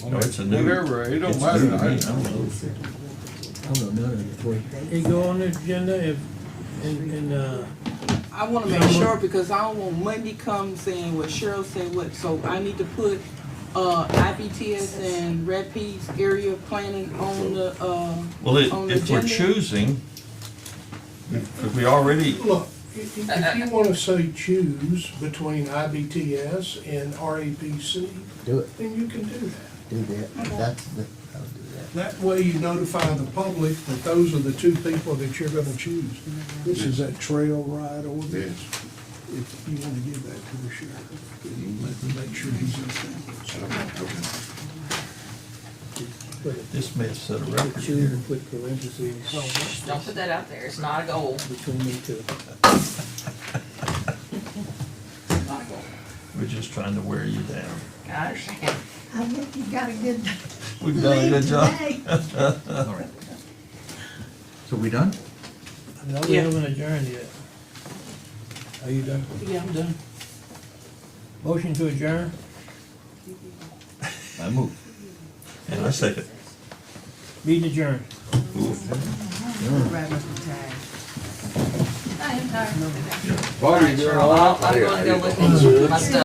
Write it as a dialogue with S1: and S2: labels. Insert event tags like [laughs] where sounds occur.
S1: No, it's a new.
S2: Whatever, it don't
S1: it's
S2: matter.
S1: new to me.
S2: I-
S1: I don't know.
S3: I don't know none of the three.
S4: It go on the agenda if, and, and, uh,
S5: I wanna make sure, because I don't want Monday come saying what Cheryl said what, so I need to put, uh, IBTS and Red Peas area planning on the, uh,
S1: Well,
S5: On
S1: it-
S5: the
S1: if we're
S5: agenda?
S1: choosing, if we already,
S6: Look, i- i- if you want to say choose between IBTS and RAPC,
S3: Do it,
S6: then you can do that.
S3: do that. That's the, I'll do that.
S6: That way you notify the public that those are the two people that you're going to choose. This is that trail ride ordinance. If you want to give that to the sheriff, then you let him make sure he's in favor.
S1: this may set a record
S3: Choose
S1: here.
S3: and put parentheses
S7: Don't put that out there, it's not a goal.
S3: between the two.
S7: It's not a goal.
S1: We're just trying to wear you down.
S7: I understand.
S8: I think you got a good
S1: We've done a
S8: lead
S1: good job.
S8: today.
S1: [laughs]
S3: All right. So we done?
S4: no, we
S5: Yeah.
S4: haven't adjourned yet. Are you done?
S5: yeah, I'm done.
S4: Motion to adjourn?
S3: I move.
S1: And I second.
S4: Meeting adjourned.
S8: Right up the time.
S7: I am tired.
S2: Bobby, you're
S7: Cheryl, I'm gonna go look at my stuff.